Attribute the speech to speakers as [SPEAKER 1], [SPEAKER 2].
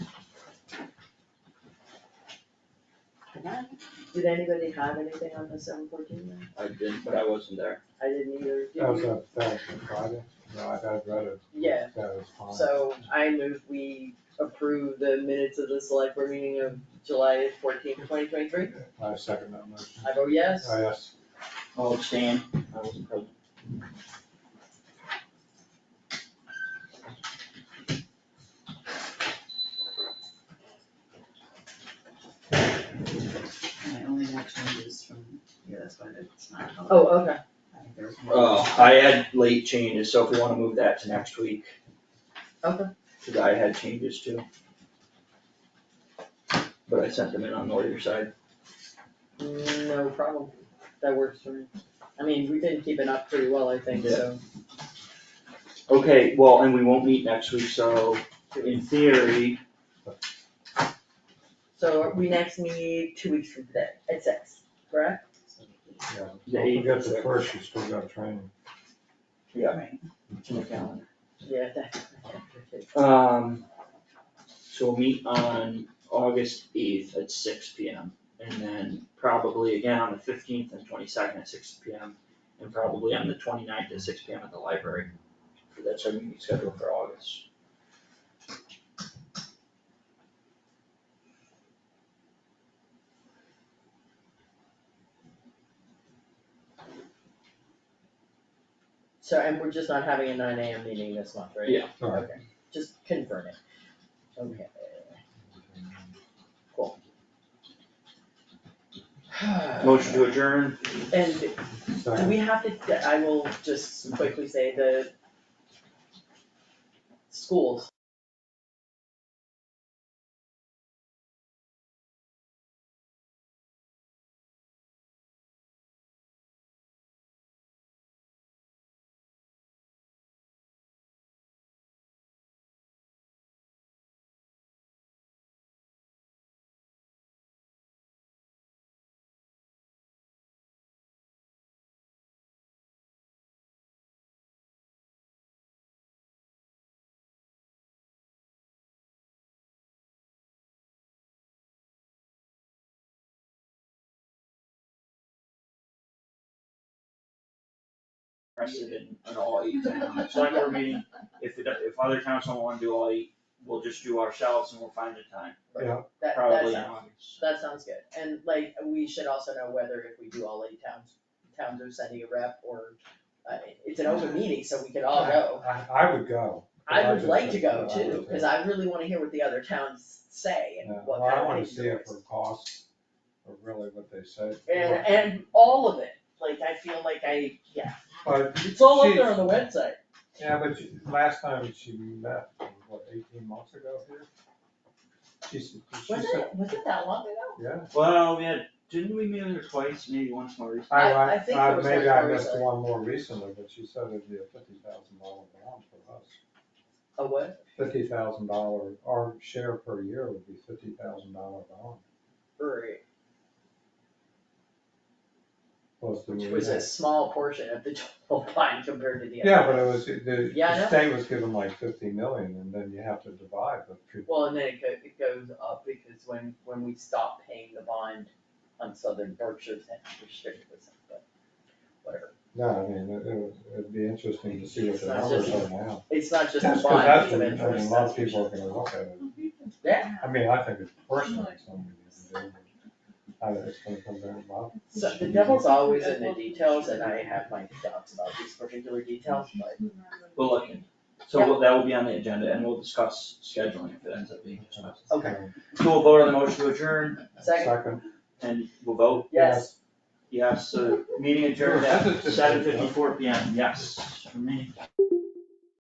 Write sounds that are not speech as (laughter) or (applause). [SPEAKER 1] Did anybody have anything on the seven fourteen then?
[SPEAKER 2] I didn't, but I wasn't there.
[SPEAKER 1] I didn't either, did you?
[SPEAKER 3] That was a, that was a Friday, no, I had read it,
[SPEAKER 1] Yeah,
[SPEAKER 3] that was fine.
[SPEAKER 1] so I move we approve the minutes of the select board meeting of July fourteenth, twenty twenty-three.
[SPEAKER 3] I second that motion.
[SPEAKER 1] I vote yes.
[SPEAKER 3] I asked,
[SPEAKER 2] Oh, Stan, I wasn't present.
[SPEAKER 4] My only next one is from, yeah, that's why it's not.
[SPEAKER 1] Oh, okay.
[SPEAKER 4] I think there's more.
[SPEAKER 2] Uh, I had late changes, so if we wanna move that to next week.
[SPEAKER 1] Okay.
[SPEAKER 2] Cause I had changes too. But I sent them in on the other side.
[SPEAKER 1] No problem, that works for me. I mean, we've been keeping up pretty well, I think, so.
[SPEAKER 2] Okay, well, and we won't meet next week, so in theory,
[SPEAKER 1] So we next meet two weeks from today at six, correct?
[SPEAKER 3] yeah,
[SPEAKER 2] The
[SPEAKER 3] don't
[SPEAKER 2] eighth
[SPEAKER 3] forget
[SPEAKER 2] is
[SPEAKER 3] the
[SPEAKER 2] it.
[SPEAKER 3] first, you still got training.
[SPEAKER 2] yeah.
[SPEAKER 4] Right.
[SPEAKER 2] it's in the calendar.
[SPEAKER 1] Yeah, that.
[SPEAKER 2] Um, so we'll meet on August eighth at six P M. And then probably again on the fifteenth and twenty-second at six P M. And probably on the 29th at six P M at the library. So That's our meeting schedule for August.
[SPEAKER 1] So, and we're just not having a nine AM meeting this month, right?
[SPEAKER 2] Yeah.
[SPEAKER 3] Alright.
[SPEAKER 1] Okay, just confirm it. Okay. (sighs)
[SPEAKER 2] Motion to adjourn,
[SPEAKER 1] And Do
[SPEAKER 3] Second,
[SPEAKER 1] we have to, I will just quickly say the schools,
[SPEAKER 2] precedent in all eight towns, select board meeting, if it, if other towns don't wanna do all eight, we'll just do ourselves and we'll find a time,
[SPEAKER 1] that, that
[SPEAKER 2] probably in
[SPEAKER 1] sounds,
[SPEAKER 2] August.
[SPEAKER 1] that sounds good. And like, we should also know whether if we do all eight towns, towns are sending a rep or, uh, it's an open meeting, so we can all go.
[SPEAKER 3] I, I would go.
[SPEAKER 1] I would like to go
[SPEAKER 3] I would
[SPEAKER 1] too, cause I really wanna hear what the other towns say
[SPEAKER 3] Yeah,
[SPEAKER 1] and what
[SPEAKER 3] Well, I
[SPEAKER 1] kind
[SPEAKER 3] wanna
[SPEAKER 1] of things
[SPEAKER 3] see
[SPEAKER 1] they're
[SPEAKER 3] it for costs, or really what they said.
[SPEAKER 1] And, and all of it, like, I feel like I, yeah,
[SPEAKER 3] But,
[SPEAKER 1] it's all up there on the website.
[SPEAKER 3] yeah, but you- last time she met, what, eighteen months ago here? She, s- she
[SPEAKER 1] Was
[SPEAKER 3] said,
[SPEAKER 1] it, was it that long ago?
[SPEAKER 3] yeah.
[SPEAKER 2] Well, we had, didn't we meet her twice, maybe once more recently?
[SPEAKER 3] I,
[SPEAKER 1] I- I
[SPEAKER 3] I,
[SPEAKER 1] think
[SPEAKER 3] I-
[SPEAKER 1] it was
[SPEAKER 3] maybe
[SPEAKER 1] much
[SPEAKER 3] I
[SPEAKER 1] more
[SPEAKER 3] missed
[SPEAKER 1] recently.
[SPEAKER 3] one more recently, but she said it'd be a fifty thousand dollar bond for us.
[SPEAKER 1] A what?
[SPEAKER 3] Fifty thousand dollar, our share per year would be fifty thousand dollar bond,
[SPEAKER 1] Brewery.
[SPEAKER 3] plus the.
[SPEAKER 1] Which was a small portion of the (laughs) total pie compared to the other.
[SPEAKER 3] Yeah, but it was, the,
[SPEAKER 1] Yeah, I know.
[SPEAKER 3] the state was given like fifty million, and then you have to divide the two.
[SPEAKER 1] Well, and then it goes, it goes up because when, when we stopped paying the bond on Southern Berkshire's end, restricted was, but whatever.
[SPEAKER 3] No, I mean, it, it would, it'd be interesting to see what the
[SPEAKER 1] That's
[SPEAKER 3] numbers
[SPEAKER 1] just-
[SPEAKER 3] are now.
[SPEAKER 1] It's not just
[SPEAKER 3] That's
[SPEAKER 1] the
[SPEAKER 3] 'cause
[SPEAKER 1] bond,
[SPEAKER 3] that's
[SPEAKER 1] it's of
[SPEAKER 3] what- I mean,
[SPEAKER 1] interest,
[SPEAKER 3] a lot
[SPEAKER 1] that's
[SPEAKER 3] of
[SPEAKER 1] for
[SPEAKER 3] people are
[SPEAKER 1] sure.
[SPEAKER 3] gonna look at it,
[SPEAKER 1] Yeah.
[SPEAKER 3] I mean, I think it's personally something you can do, but I, it's gonna come down, well,
[SPEAKER 1] So the devil's always in the details and I have my doubts about these particular details, but
[SPEAKER 2] We'll look in. So we'll- that will be on the agenda and we'll discuss scheduling if it ends up being discussed.
[SPEAKER 1] Okay.
[SPEAKER 3] Um,
[SPEAKER 2] So we'll vote on the motion to adjourn
[SPEAKER 1] second,
[SPEAKER 3] second,
[SPEAKER 2] and we'll vote,
[SPEAKER 1] yes,
[SPEAKER 2] yes, so meeting adjourned at seven fifty-four P M, yes, for me.